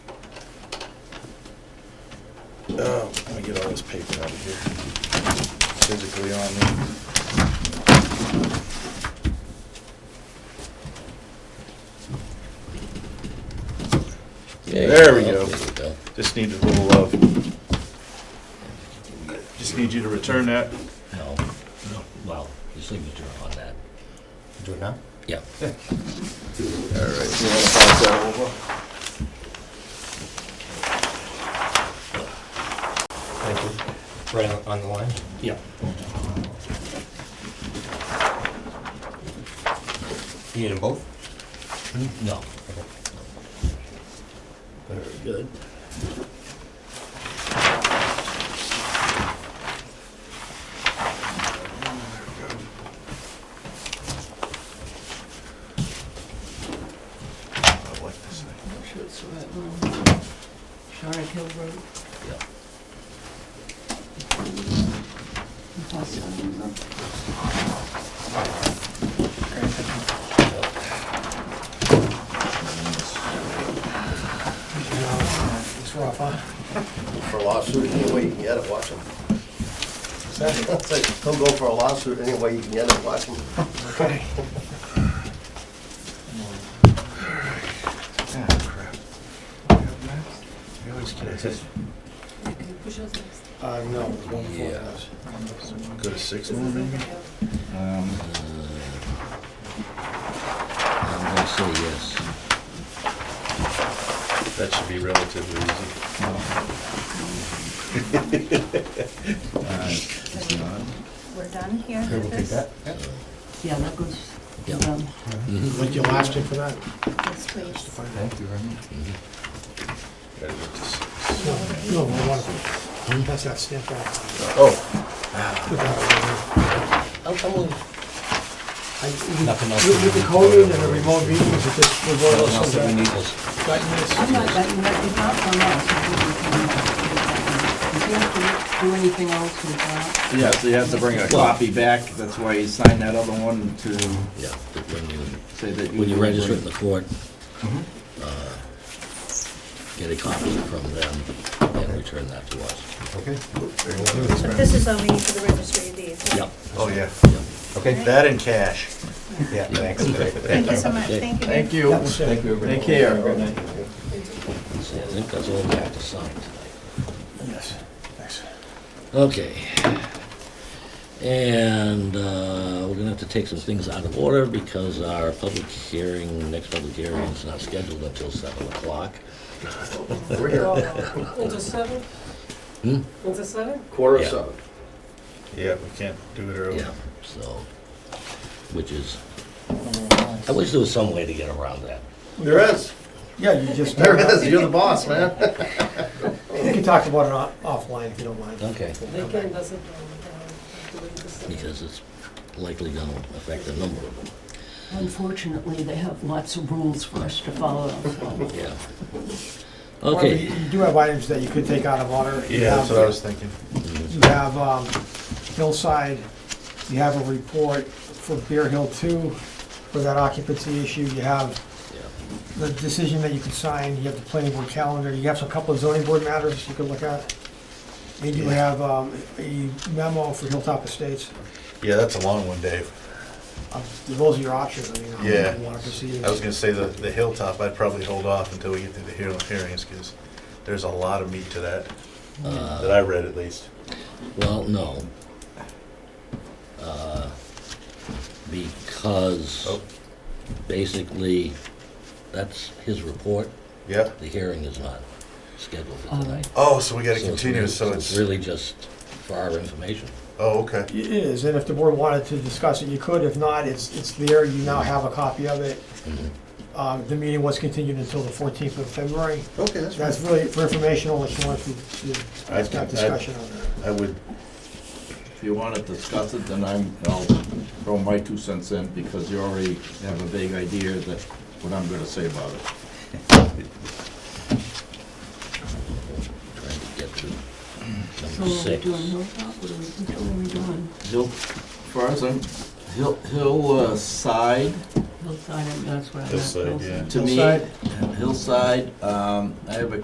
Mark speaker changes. Speaker 1: Uh, Let me get all this paper out of here. Physically on me.
Speaker 2: Yeah,
Speaker 1: There we
Speaker 2: yeah,
Speaker 1: go.
Speaker 2: there we go.
Speaker 1: Just need a little love. Just need you to return that.
Speaker 2: No, no, well, your signature on that.
Speaker 3: Do it now?
Speaker 2: Yeah.
Speaker 1: All right. You wanna pass that over?
Speaker 3: Thank you. Right on- on the line?
Speaker 2: Yeah.
Speaker 3: You need them both?
Speaker 2: No. Good.
Speaker 1: I like this thing.
Speaker 4: Schutz Road, Shorrock Hill Road.
Speaker 2: Yeah.
Speaker 4: and Hawthorne Road.
Speaker 5: for a lawsuit any way you can get it, watch them. He'll go for a lawsuit any way you can get it, watch him.
Speaker 1: Ah, crap. You always get it.
Speaker 4: Who shows next?
Speaker 3: Uh, no.
Speaker 2: Yeah.
Speaker 1: Go to six more maybe? Um, uh,
Speaker 2: I'm gonna say yes.
Speaker 1: That should be relatively easy.
Speaker 6: We're done here
Speaker 3: Okay, we'll take
Speaker 6: with this?
Speaker 3: that.
Speaker 4: Yeah, that goes,
Speaker 2: Yeah.
Speaker 4: um,
Speaker 7: Like your last one for that?
Speaker 6: Yes, please.
Speaker 3: Thank you very much.
Speaker 1: Gotta go to six.
Speaker 7: No, I want to, that's that stamp out.
Speaker 1: Oh,
Speaker 3: I'm, I'm willing. Nothing else.
Speaker 7: With the coding and the remote meetings, it just, we're going
Speaker 3: Nothing else
Speaker 7: to
Speaker 3: that we
Speaker 7: some
Speaker 3: need is,
Speaker 4: I'm not, that, that is not on us. If you have to do anything else with that,
Speaker 8: Yeah, so you have to bring a copy back, that's why you signed that other one to
Speaker 2: Yeah, but when you,
Speaker 8: say that you.
Speaker 2: when you register in the court, uh, get a copy from them and return that to us.
Speaker 3: okay,
Speaker 6: But this is only for the registry of deeds. right?
Speaker 2: Yep.
Speaker 3: Oh, yeah.
Speaker 2: Yep.
Speaker 3: okay,
Speaker 1: that in cash.
Speaker 3: yeah, thanks.
Speaker 6: Thank you so much.
Speaker 2: Okay.
Speaker 6: Thank you. very
Speaker 8: Thank you. Thank you. Take care, good night.
Speaker 2: See, I think that's all we have to sign tonight.
Speaker 1: Yes, thanks.
Speaker 2: Okay. And uh, we're gonna have to take some things out of order because our public hearing, next public hearing is not scheduled until seven o'clock.
Speaker 5: We're here,
Speaker 9: Until seven?
Speaker 2: Hmm?
Speaker 9: Until seven?
Speaker 5: quarter of
Speaker 2: Yeah.
Speaker 5: seven.
Speaker 1: Yeah, we can't do it early.
Speaker 2: Yeah, so, which is, I wish there was some way to get around that.
Speaker 5: There is,
Speaker 7: Yeah, you just,
Speaker 5: there is, you're the boss, man.
Speaker 7: we can talk about it off- offline if you don't mind.
Speaker 2: Okay.
Speaker 9: Weekend doesn't, uh, do it until seven.
Speaker 2: Because it's likely gonna affect the number of them,
Speaker 4: unfortunately, they have lots of rules for us to follow, so.
Speaker 2: yeah.
Speaker 7: However,
Speaker 2: Okay.
Speaker 7: You you do have items that you could take out of order. You
Speaker 1: Yeah, that's
Speaker 7: have-
Speaker 1: what I was thinking.
Speaker 7: You
Speaker 2: Mm-hmm.
Speaker 7: have um, Hillside, you have a report for Bear Hill Two for that occupancy issue. You have
Speaker 2: Yeah.
Speaker 7: the decision that you can sign, you have the planning board calendar, you have a couple of zoning board matters you could look at. And you have um, a memo for Hilltop Estates.
Speaker 1: Yeah, that's a long one, Dave.
Speaker 7: Uh, Those are your options, I mean, how
Speaker 1: Yeah.
Speaker 7: you want to proceed.
Speaker 1: I was gonna say the, the hilltop, I'd probably hold off until we get through the hear- hearings, because there's a lot of meat to that,
Speaker 2: Uh,
Speaker 1: that I read at least.
Speaker 2: Well, no. Uh, Because
Speaker 1: Oh.
Speaker 2: basically, that's his report,
Speaker 1: Yeah?
Speaker 2: the hearing is not scheduled for
Speaker 4: Oh.
Speaker 2: tonight.
Speaker 1: Oh, so we gotta
Speaker 2: So it's
Speaker 1: continue,
Speaker 2: really-
Speaker 1: so it's,
Speaker 2: Really just for our information.
Speaker 1: oh, okay.
Speaker 7: It is, and if the board wanted to discuss it, you could. If not, it's, it's there. You now have a copy of it.
Speaker 2: Mm-hmm.
Speaker 7: Um, The meeting was continued until the 14th of February.
Speaker 5: Okay, that's right.
Speaker 7: That's really for informational, if you want to, to
Speaker 1: I
Speaker 7: have that
Speaker 1: think- I-
Speaker 7: discussion on that.
Speaker 1: I would,
Speaker 8: If you wanna discuss it, then I'm, I'll throw my two cents in, because you already have a vague idea that, what I'm gonna say about it.
Speaker 2: trying to get to
Speaker 4: So
Speaker 2: number
Speaker 4: are we
Speaker 2: six.
Speaker 4: doing Hilltop, what are we, what are we doing?
Speaker 8: Hill, first, I'm, Hill, Hill uh, side,
Speaker 4: Hillside, and that's what I meant.
Speaker 1: Hillside, yeah.
Speaker 8: to me, uh,
Speaker 7: Hillside.
Speaker 8: Hillside, um, I have a